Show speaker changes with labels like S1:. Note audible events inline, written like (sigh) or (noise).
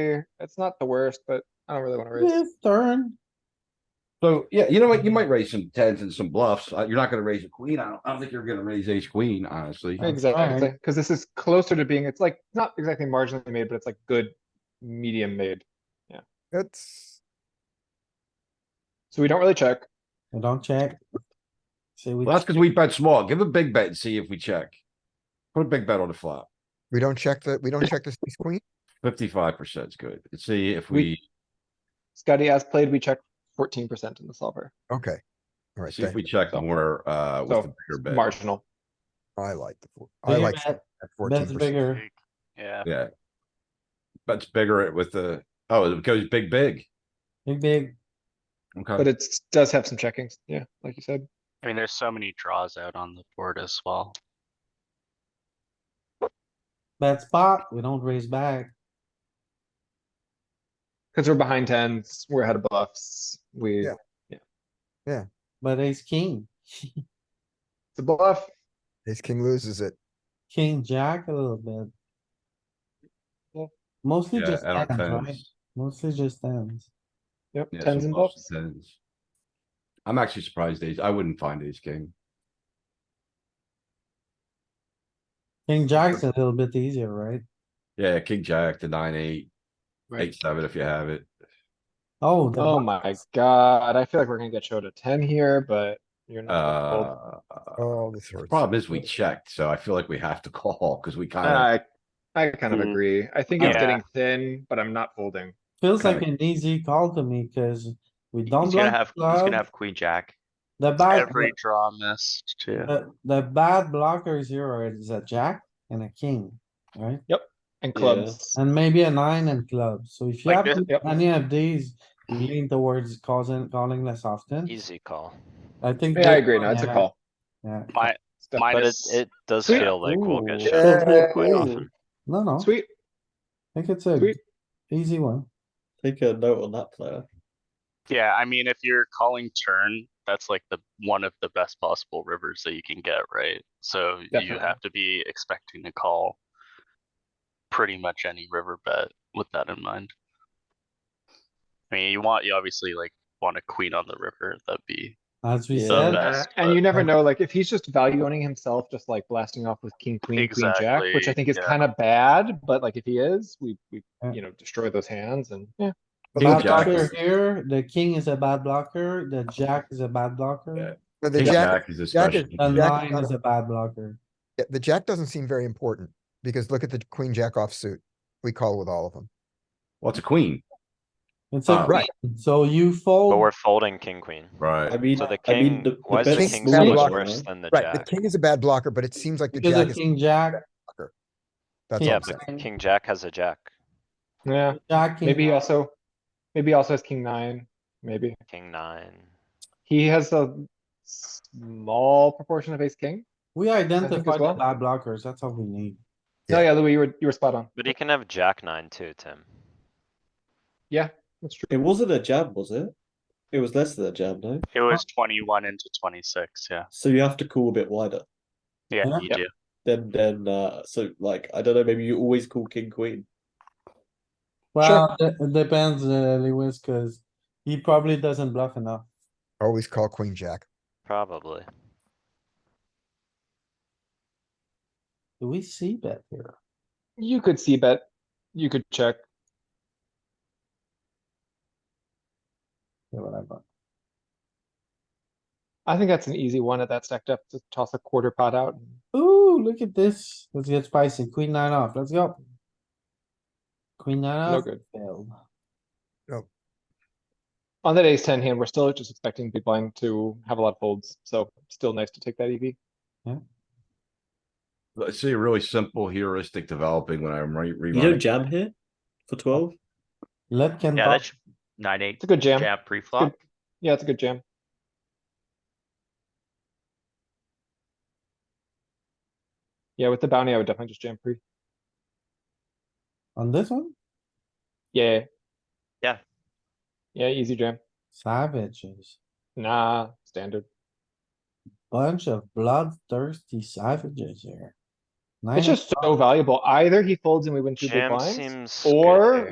S1: here. It's not the worst, but I don't really wanna raise.
S2: His turn.
S3: So, yeah, you know what? You might raise some tens and some bluffs. Uh, You're not gonna raise a queen. I don't, I don't think you're gonna raise ace queen, honestly.
S2: I'm
S1: Exactly,
S2: trying.
S1: cuz this is closer to being, it's like, it's not exactly marginally made, but it's like good medium made.
S4: It's,
S1: So we don't really check.
S2: I don't check. See, we,
S3: Well, that's because we bet small. Give a big bet and see if we check. Put a big bet on the flop.
S4: we don't check the, we don't check the ace queen.
S3: Fifty-five percent is good. Let's See if
S1: We-
S3: we,
S1: Scotty as played, we check fourteen percent in the solver,
S4: Okay. All right,
S3: see if
S4: thank,
S3: we check more, uh, with the
S1: So,
S3: bigger bet.
S1: marginal.
S4: I like, the four- I
S2: bigger
S4: like
S2: bet,
S4: fourteen
S2: bet's
S4: percent.
S2: bigger.
S5: Yeah,
S3: Yeah. That's bigger with the, oh, it goes big, big.
S2: Big, big.
S1: But
S3: Okay.
S1: it does have some checkings, yeah, like you said.
S5: I mean, there's so many draws out on the board as well.
S2: Bad spot. We don't raise back.
S1: Cuz we're behind tens, we're ahead of bluffs, we,
S4: Yeah.
S1: it's
S2: But ace, king, (laughs)
S1: a bluff.
S4: Ace king loses it.
S2: king, jack a little bit.
S1: Yeah.
S2: Mostly
S3: Yeah,
S2: just
S3: at our
S2: tens, right?
S3: tens.
S2: Mostly just tens.
S1: Yep,
S3: Yeah,
S1: tens
S3: some
S1: and bluffs.
S3: tens. I'm actually surprised ace. I wouldn't find ace king.
S2: King, jack's a little bit easier, right?
S3: Yeah, king, jack, the nine, eight,
S1: Right.
S3: eight, seven, if you have it.
S2: Oh, the
S1: Oh
S2: bo-
S1: my god, I feel like we're gonna get showed a ten here, but you're not. gonna fold.
S3: Uh,
S4: All the sorts.
S3: problem is we checked, so I feel like we have to (laughs) call because we kind of,
S1: I, Uh, I kind of
S5: Hmm.
S1: agree. I think it's
S5: Yeah.
S1: getting thin, but I'm not folding.
S2: feels like an easy call to me, cuz we don't
S6: He's gonna
S2: block
S6: have, he's gonna
S2: club,
S6: have queen jack.
S2: the bad,
S5: Every draw missed too.
S2: the, the bad blockers here are is a jack and a king, right?
S1: And clubs,
S2: And maybe a nine and club, so if you
S6: Like
S2: have
S6: this-
S1: Yep.
S2: any of these, you lean towards causing, calling less often,
S6: Easy call.
S2: I think.
S1: yeah, I
S2: that-
S1: agree, no, it's a
S2: yeah,
S1: call.
S2: Yeah,
S5: My,
S1: It's def-
S6: But it,
S5: Minus-
S6: it does
S1: Sweet.
S6: feel like we'll get
S1: Ooh.
S6: shoved
S1: Yeah.
S6: quite
S1: Ooh.
S6: often.
S2: no, no, I
S1: Sweet,
S2: think it's a
S1: Sweet.
S2: easy one.
S7: Take a note on that player.
S5: yeah, I mean, if you're calling turn, that's like the, one of the best possible rivers that you can get, right? So you
S1: Definitely.
S5: have to be expecting to call pretty much any river bet with that in mind. I mean, you want, you obviously like want a queen on the river, that'd be,
S2: As we
S5: The
S7: Yeah.
S2: said,
S5: best.
S1: uh,
S5: Yes,
S1: and you
S5: but-
S1: never know, like, if he's just value owning himself, just like blasting off with king, queen, queen, jack, which I
S5: Exactly,
S1: think is
S5: yeah.
S1: kinda bad, but like, if he is, we, we,
S2: Yeah.
S1: you know, destroy those hands and, yeah.
S4: But
S3: King
S2: bad
S4: not-
S3: jack
S2: blocker
S3: is-
S2: here, the king is a bad blocker, the jack is a bad
S3: Yeah.
S2: blocker,
S4: but The
S3: king,
S4: jack,
S3: jack is
S4: jack is-
S2: the
S3: especially.
S4: Jack is
S2: nine
S4: not
S2: is
S4: a-
S2: a bad blocker.
S4: yeah, the jack doesn't seem very important because look at the queen jack off suit. We call with all of them.
S3: Well, it's a queen,
S2: It's
S3: Uh,
S2: a,
S4: right.
S2: queen, so you
S6: But we're
S2: fold,
S6: folding king, queen.
S7: I
S3: right?
S7: mean,
S6: So the
S7: I mean,
S6: king,
S7: the, the
S6: why is the
S4: best
S6: king
S4: move
S6: so
S4: blocker,
S6: much worse
S7: right?
S6: than the
S4: Right, the
S6: jack?
S4: king is a bad blocker, but it seems like the
S2: because a
S4: jack is,
S2: king, jack,
S4: that's all
S6: Yeah,
S4: I'm saying.
S6: but king jack has a jack,
S1: Yeah,
S2: jack, king.
S1: maybe uh, he
S2: nine.
S1: also, maybe he also has king nine, maybe.
S6: king nine.
S1: He has a small proportion of ace king.
S2: We identified the
S1: well.
S2: bad blockers, that's all we need.
S1: No,
S4: Yeah.
S1: Oh, yeah, Louis, you were, you were spot on.
S6: But he can have jack nine too, Tim.
S1: That's true.
S7: It wasn't a jab, was it? It was less than a jab, no?
S5: it was twenty-one into twenty-six, yeah.
S7: So you have to call a bit wider.
S2: Yeah.
S5: Yeah, you
S1: Yep.
S5: do.
S7: Then, then, uh, so like, I don't know, maybe you always call king, queen.
S2: Well, it it depends, uh, Lewis, cuz he probably doesn't bluff enough.
S4: Always call queen jack.
S6: Probably.
S2: Do we see bet here?
S1: You could see bet, you could check.
S2: Yeah, whatever.
S1: I think that's an easy one at that stacked up to toss a quarter pot out.
S2: Ooh, look at this. Let's get spicy. Queen nine off. Let's go. Queen nine
S1: No
S2: off.
S1: good.
S2: Failed.
S1: On that ace ten hand, we're still just expecting big blind to have a lot of folds, so still nice to take that E EV.
S3: Let's see, a really simple heuristic developing when I'm re-
S7: You don't
S3: rerunning.
S7: jam here for 12?
S2: Let Ken
S6: Yeah,
S2: pop.
S6: that's nine, eight,
S1: It's a good jam.
S6: jab pre-flop.
S1: Yeah, it's a good jam. Yeah, with the bounty, I would definitely just jam pre.
S2: on this one.
S1: Yeah.
S6: Yeah.
S1: Yeah, easy jam.
S2: Savages.
S1: Nah, standard.
S2: Bunch of bloodthirsty savages here. Nine
S1: It's just so valuable. Either he folds and we win two big
S6: Jam
S1: blinds,
S6: seems. good
S1: or
S6: here.